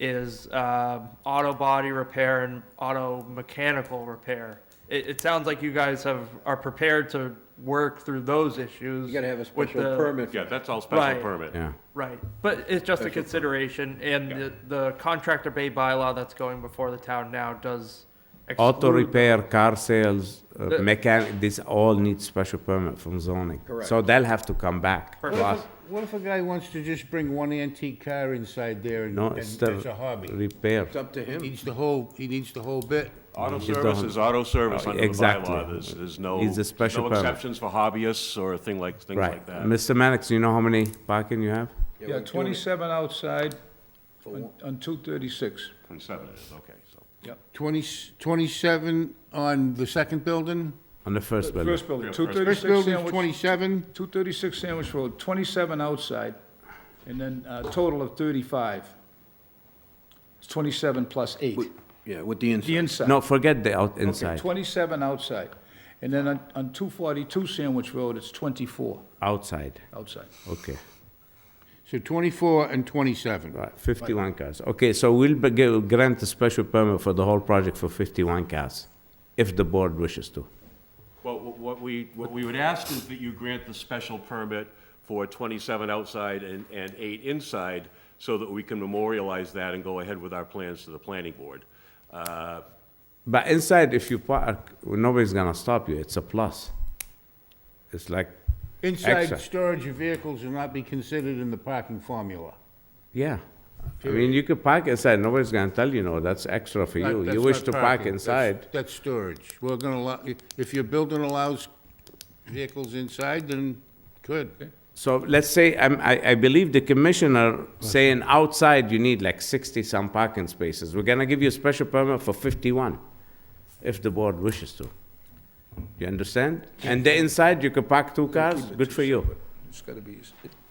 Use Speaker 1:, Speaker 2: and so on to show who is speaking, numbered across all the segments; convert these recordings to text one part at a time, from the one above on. Speaker 1: is um, auto body repair and auto mechanical repair. It, it sounds like you guys have, are prepared to work through those issues.
Speaker 2: You gotta have a
Speaker 1: with
Speaker 2: special
Speaker 1: the-
Speaker 2: permit.
Speaker 3: Yeah, that's all special
Speaker 1: Right.
Speaker 3: permit.
Speaker 4: Yeah.
Speaker 1: Right, but it's just a
Speaker 2: Special-
Speaker 1: consideration, and the, the contractor bay bylaw that's going before the town now does
Speaker 4: Auto
Speaker 1: exclude
Speaker 4: repair, car sales, uh,
Speaker 1: The-
Speaker 4: mechanic, this all needs special permit from zoning. So
Speaker 2: Correct.
Speaker 4: they'll have to come back to
Speaker 1: Perfect.
Speaker 4: us.
Speaker 5: What if a guy wants to just bring one antique car inside there and,
Speaker 4: No,
Speaker 5: and
Speaker 4: it's
Speaker 5: that's
Speaker 4: the
Speaker 5: a hobby?
Speaker 4: repair.
Speaker 2: It's up to
Speaker 5: He
Speaker 2: him.
Speaker 5: needs the whole, he needs the whole bit.
Speaker 3: Auto
Speaker 4: You
Speaker 3: service
Speaker 4: don't-
Speaker 3: is auto service
Speaker 4: Oh,
Speaker 3: under the
Speaker 4: exactly.
Speaker 3: bylaw. There's, there's no,
Speaker 4: It's a
Speaker 3: there's
Speaker 4: special
Speaker 3: no
Speaker 4: permit.
Speaker 3: exceptions for hobbyists or thing like, things
Speaker 4: Right.
Speaker 3: like that.
Speaker 4: Mr. Mannix, you know how many parking you have?
Speaker 2: Yeah,
Speaker 6: Yeah,
Speaker 2: we're doing it.
Speaker 6: 27 outside
Speaker 2: For
Speaker 6: on
Speaker 2: one-
Speaker 6: on 236.
Speaker 3: Twenty-seven it is, okay, so.
Speaker 5: Twenty, twenty-seven on the second building?
Speaker 4: On the first building?
Speaker 6: First building,
Speaker 3: Yeah, first-
Speaker 5: First
Speaker 6: 236
Speaker 5: building's
Speaker 6: Sandwich,
Speaker 5: twenty-seven,
Speaker 6: 236 Sandwich Road, 27 outside, and then a total of 35. It's 27 plus 8,
Speaker 2: Yeah, with the
Speaker 6: the
Speaker 2: inside.
Speaker 6: inside.
Speaker 4: No, forget the out,
Speaker 6: Okay,
Speaker 4: inside,
Speaker 6: 27 outside. And then on on 242 Sandwich Road, it's 24
Speaker 4: outside,
Speaker 6: outside.
Speaker 4: okay.
Speaker 5: so twenty-four and twenty-seven.
Speaker 4: Right, fifty-one cars. Okay, so we'll be- gi- grant a special permit for the whole project for fifty-one cars, if the board wishes to.
Speaker 3: Well, wh- what we, what we would ask is that you grant the special permit for twenty-seven outside and, and eight inside, so that we can memorialize that and go ahead with our plans to the planning board. Uh,
Speaker 4: But inside, if you park, nobody's gonna stop you, it's a plus. It's like,
Speaker 5: Inside
Speaker 4: Excellent.
Speaker 5: storage of vehicles will not be considered in the parking formula.
Speaker 4: yeah. I mean, you could park inside, nobody's gonna tell you, no, that's extra for
Speaker 5: That-
Speaker 4: you. You
Speaker 5: that's
Speaker 4: wish
Speaker 5: not
Speaker 4: to park
Speaker 5: parking, that's-
Speaker 4: inside,
Speaker 5: That's storage. We're gonna allow, if your building allows vehicles inside, then good.
Speaker 4: So let's say, um, I, I believe the commissioner saying outside you need like sixty-some parking spaces. We're gonna give you a special permit for fifty-one, if the board wishes to. You understand? And the inside, you could park two cars, good for you.
Speaker 6: It's gotta be,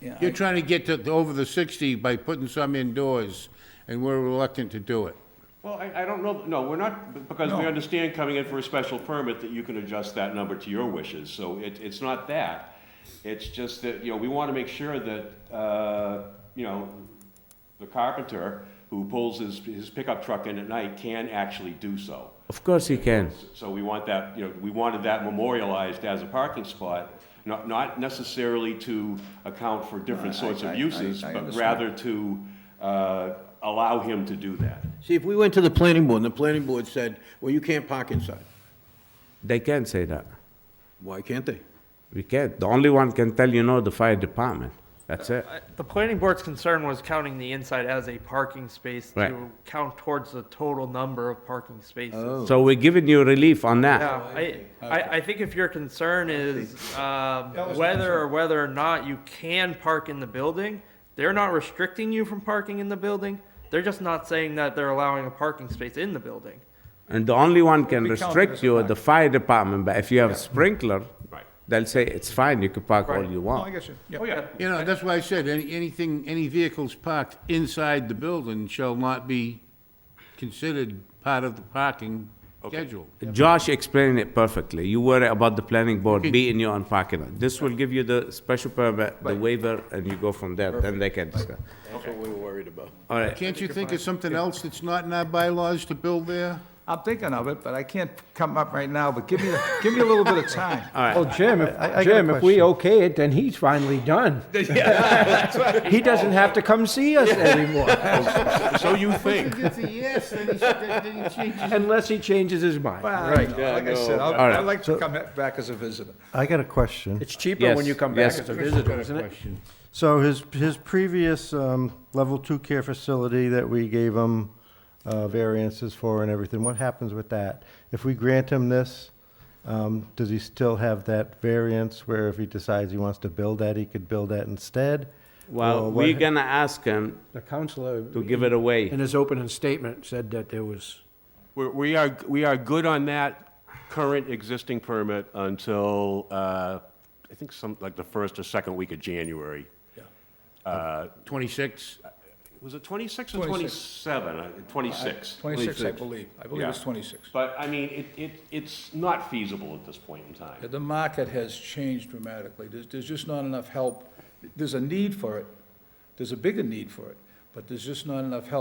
Speaker 6: yeah.
Speaker 5: You're trying to get to, to over the sixty by putting some indoors, and we're reluctant to do it.
Speaker 3: Well, I, I don't know, no, we're not, b- because we understand coming in for a special permit that you can adjust that number to your wishes, so it, it's not that. It's just that, you know, we want to make sure that, uh, you know, the carpenter who pulls his, his pickup truck in at night can actually do so.
Speaker 4: Of course you can.
Speaker 3: So we want that, you know, we wanted that memorialized as a parking spot, not, not necessarily to account for different sorts
Speaker 2: I-
Speaker 3: of
Speaker 2: I-
Speaker 3: uses,
Speaker 2: I
Speaker 3: but
Speaker 2: understand.
Speaker 3: rather to, uh, allow him to do that.
Speaker 2: See, if we went to the planning board and the planning board said, well, you can't park inside,
Speaker 4: They can say that.
Speaker 2: why can't they?
Speaker 4: We can't. The only one can tell you no, the fire department. That's it.
Speaker 1: I- The planning board's concern was counting the inside as a parking space
Speaker 4: Right.
Speaker 1: to count towards the total number of parking
Speaker 2: Oh.
Speaker 1: spaces.
Speaker 5: Oh.
Speaker 4: So we're giving you relief on that.
Speaker 1: Yeah, I, I, Oh, I think if your concern is, um, whether or whether or not you can park in the building, they're not restricting you from parking in the building. They're just not saying that they're allowing a parking space in the building.
Speaker 4: And the only one can
Speaker 6: Be counted
Speaker 4: restrict
Speaker 6: as
Speaker 4: you, the fire department, but if you have sprinkler,
Speaker 3: Right.
Speaker 4: they'll say it's fine, you can park all
Speaker 1: Right.
Speaker 4: you
Speaker 6: No, I
Speaker 4: want.
Speaker 6: get you. Yeah.
Speaker 1: Oh, yeah.
Speaker 5: You know, that's why I said, any, anything, any vehicles parked inside the building shall not be considered part of the parking schedule.
Speaker 4: Josh explained it perfectly. You worry about the planning board beating you on parking. lot. This will give you the special permit, the waiver, and you go from there, then they can discuss.
Speaker 2: That's what we were worried about.
Speaker 4: All right,
Speaker 5: Can't you think of something else that's not in our bylaws to build there?
Speaker 6: I'm thinking of it, but I can't come up right now, but give me, give me a little bit of time.
Speaker 7: Well, Jim, if, Jim, if we okay it, then he's finally done. He doesn't have to come see us anymore,
Speaker 3: So you think.
Speaker 5: It's a yes, then he, then he changes.
Speaker 7: unless he changes his mind.
Speaker 6: Well, Right, like I said, I'll-
Speaker 4: All right.
Speaker 6: I'd like to come back as a visitor.
Speaker 8: I got a question.
Speaker 7: It's cheaper when
Speaker 4: Yes,
Speaker 7: you come back
Speaker 4: yes.
Speaker 7: as a visitor, isn't it?
Speaker 5: question.
Speaker 8: So his, his previous, um, level two care facility that we gave him, uh, variances for and everything, what happens with that? If we grant him this, um, does he still have that variance where if he decides he wants to build that, he could build that instead?
Speaker 4: well,
Speaker 8: Or
Speaker 4: we're
Speaker 8: what-
Speaker 4: gonna ask him
Speaker 7: The counselor,
Speaker 4: to give it away.
Speaker 7: in his opening statement, said that there was,
Speaker 3: We're, we are, we are good on that current existing permit until, uh, I think some, like the first or second week of January.
Speaker 5: Twenty-six?
Speaker 3: Was it twenty-six or
Speaker 6: 26.
Speaker 3: twenty-seven? Uh, Twenty-six.
Speaker 6: 26, I believe. I believe it's
Speaker 3: Yeah.
Speaker 6: 26.
Speaker 3: But, I mean, it, it, it's not feasible at this point in time.
Speaker 6: The market has changed dramatically. There's, there's just not enough help. There's a need for it. There's a bigger need for it, but there's just not enough help.